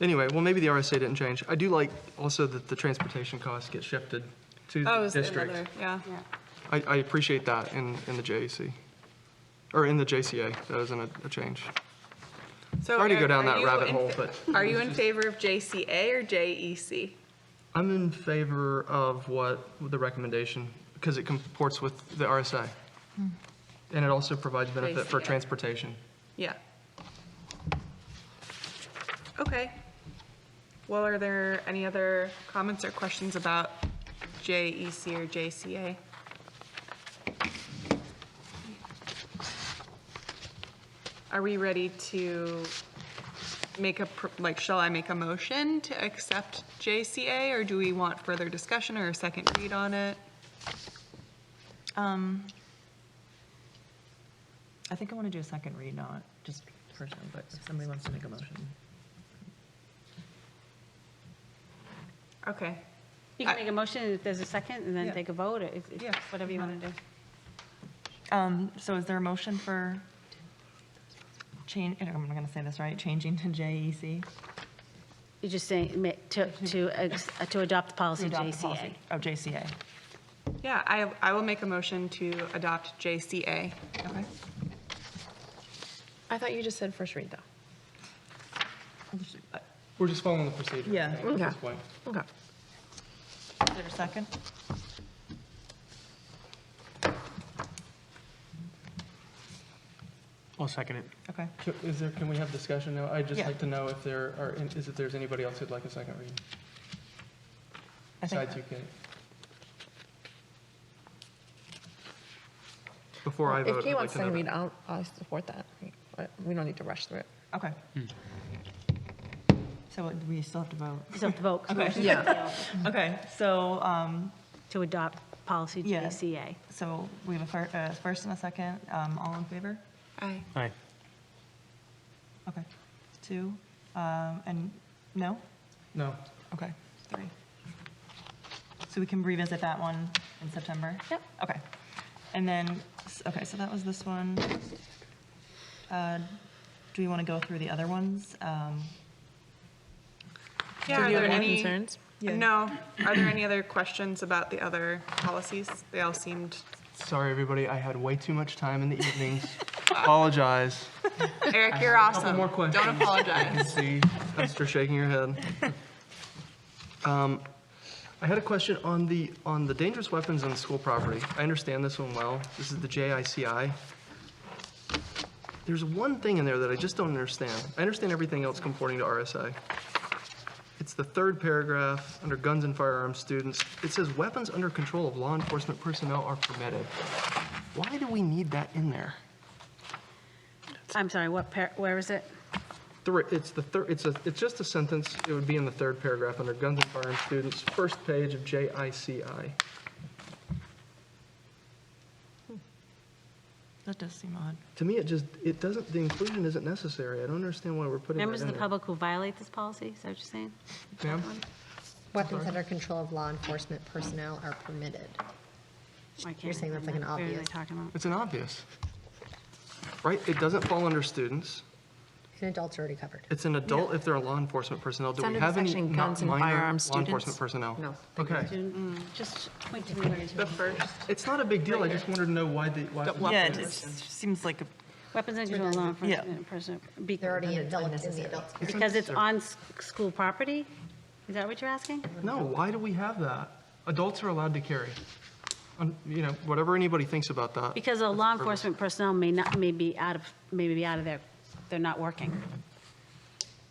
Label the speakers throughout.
Speaker 1: Anyway, well, maybe the RSA didn't change. I do like also that the transportation costs get shifted to
Speaker 2: That
Speaker 1: the
Speaker 2: was Oh, another,
Speaker 1: district.
Speaker 2: yeah.
Speaker 3: Yeah.
Speaker 1: I, I appreciate that in, in the JAC, or in the JCA, that isn't a, a change.
Speaker 2: So
Speaker 1: Sorry to
Speaker 2: are-
Speaker 1: go down
Speaker 2: are
Speaker 1: that
Speaker 2: you
Speaker 1: rabbit
Speaker 2: in
Speaker 1: hole,
Speaker 2: fa-
Speaker 1: but-
Speaker 2: Are you in favor of JCA or E JEC?
Speaker 1: I'm in favor of what, the recommendation, because it comports with the RSA.
Speaker 2: Hmm.
Speaker 1: And it also provides benefit for
Speaker 2: JCA.
Speaker 1: transportation.
Speaker 2: Yeah. Okay. Well, are there any other comments or questions about JEC or JCA? Are we ready to make a, pr- like, shall I make a motion to accept JCA, or do we want further discussion or a second read on it? Um,
Speaker 4: I think I want to do a second read, not just personally, but if somebody wants to make a motion.
Speaker 2: okay.
Speaker 3: You can
Speaker 2: I-
Speaker 3: make a motion, if there's a second, and then
Speaker 4: Yeah.
Speaker 3: take a vote, or it's- it's
Speaker 4: Yeah.
Speaker 3: whatever you want to do.
Speaker 4: Um, so is there a motion for change, and I'm going to say this right, changing to E JEC?
Speaker 3: You're just saying, ma- to, to, ex- uh, to adopt the
Speaker 4: To
Speaker 3: policy
Speaker 4: adopt the
Speaker 3: JCA.
Speaker 4: policy. Oh, JCA.
Speaker 2: Yeah, I, I will make a motion to adopt JCA.
Speaker 4: Okay.
Speaker 5: I thought you just said first read, though.
Speaker 1: We're just following the procedure. I
Speaker 4: Yeah.
Speaker 1: think, At this
Speaker 5: Okay.
Speaker 1: point.
Speaker 5: Okay.
Speaker 4: Is there a second?
Speaker 6: I'll second it.
Speaker 4: Okay.
Speaker 1: Can- Is there, can we have discussion now? I'd just
Speaker 4: Yeah.
Speaker 1: like to know if there are, is if there's anybody else who'd like a second read,
Speaker 4: I think
Speaker 1: besides you, Kate? Before I vote,
Speaker 5: If
Speaker 1: I'd
Speaker 5: Kate
Speaker 1: like
Speaker 5: wants
Speaker 1: to know
Speaker 5: to read,
Speaker 1: that.
Speaker 5: I'll, I'll support that. But We don't need to rush through it.
Speaker 4: Okay. So what, do we still have to vote?
Speaker 3: Just have to vote. 'cause
Speaker 4: Okay.
Speaker 3: motion's
Speaker 5: Yeah.
Speaker 3: failed.
Speaker 4: Okay, so, um,
Speaker 3: To adopt policy
Speaker 4: Yeah.
Speaker 3: JCA.
Speaker 4: so we have a fir- a first and a second, um, all in favor?
Speaker 2: Aye.
Speaker 6: Aye.
Speaker 4: Okay. Two, um, and no?
Speaker 1: No,
Speaker 4: Okay, three. So we can revisit that one in September?
Speaker 3: Yep.
Speaker 4: Okay. And then, s- okay, so that was this one. Uh, Do we want to go through the other ones? Um,
Speaker 2: Yeah, are
Speaker 5: Do you
Speaker 2: there
Speaker 5: have any
Speaker 2: any?
Speaker 5: concerns?
Speaker 4: Yeah.
Speaker 2: No. Are there any other questions about the other policies? They all seemed,
Speaker 1: sorry, everybody, I had way too much time in the evenings. Apologize.
Speaker 2: Eric, you're
Speaker 1: Couple
Speaker 2: awesome.
Speaker 1: more questions.
Speaker 2: Don't apologize.
Speaker 1: I see Esther shaking her head. Um, I had a question on the, on the dangerous weapons on school property. I understand this one well. This is the JICI. There's one thing in there that I just don't understand. I understand everything else comporting to RSA. It's the third paragraph, under guns and firearms students. It says weapons under control of law enforcement personnel are permitted. Why do we need that in there?
Speaker 3: I'm sorry, what, par- where is it?
Speaker 1: Three, it's the third, it's a, it's just a sentence, it would be in the third paragraph under guns and firearms students, first page of JICI.
Speaker 4: That does seem odd.
Speaker 1: To me, it just, it doesn't, the inclusion isn't necessary, I don't understand why we're putting that in
Speaker 3: Members of the
Speaker 1: there.
Speaker 3: public who violate this policy, is that what you're saying?
Speaker 1: Ma'am?
Speaker 7: Weapons under control of law enforcement personnel are permitted.
Speaker 3: I can't
Speaker 7: You're saying that's like an
Speaker 3: remember. What are they
Speaker 7: obvious-
Speaker 3: talking about?
Speaker 1: It's an obvious. Right, it doesn't fall under students,
Speaker 7: And adults are already covered.
Speaker 1: it's an adult if they're a law enforcement personnel, do
Speaker 5: It's
Speaker 1: we
Speaker 5: under
Speaker 1: have
Speaker 5: the
Speaker 1: any
Speaker 5: section
Speaker 1: not
Speaker 5: guns and
Speaker 1: minor
Speaker 5: firearms
Speaker 1: law
Speaker 5: students.
Speaker 1: enforcement personnel?
Speaker 7: No.
Speaker 1: Okay,
Speaker 3: Just point to me where it
Speaker 2: The
Speaker 3: is.
Speaker 2: first,
Speaker 1: it's not a big deal, I just wanted to know why the, why.
Speaker 4: Yeah, it just seems like, a
Speaker 3: Weapons and control law
Speaker 4: Yeah.
Speaker 3: enforcement person. be-
Speaker 7: They're already in adults in the adults.
Speaker 3: Because it's on s- school property? Is that what you're asking?
Speaker 1: No, why do we have that? Adults are allowed to carry. Um, You know, whatever anybody thinks about that.
Speaker 3: Because a law enforcement personnel may not, may be out of, may be out of there, they're not working.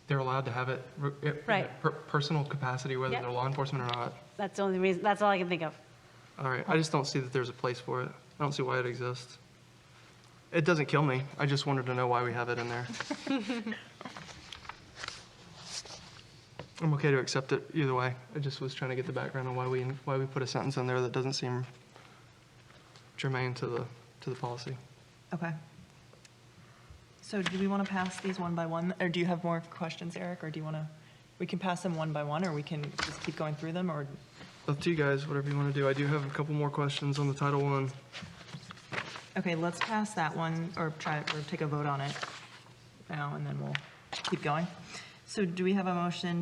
Speaker 1: they're allowed to have it, r- it- in
Speaker 3: Right.
Speaker 1: a per- personal capacity, whether
Speaker 3: Yep.
Speaker 1: they're law enforcement or not.
Speaker 3: That's the only reason, that's all I can think of.
Speaker 1: All right, I just don't see that there's a place for it. I don't see why it exists. It doesn't kill me, I just wanted to know why we have it in there. I'm okay to accept it either way. I just was trying to get the background on why we, why we put a sentence in there that doesn't seem germane to the, to the policy.
Speaker 4: okay. So do we want to pass these one by one, or do you have more questions, Eric, or do you want to, we can pass them one by one, or we can just keep going through them, or?
Speaker 1: Up to you guys, whatever you want to do. I do have a couple more questions on the Title One.
Speaker 4: Okay, let's pass that one, or try, or take a vote on it now, and then we'll keep going. So do we have a motion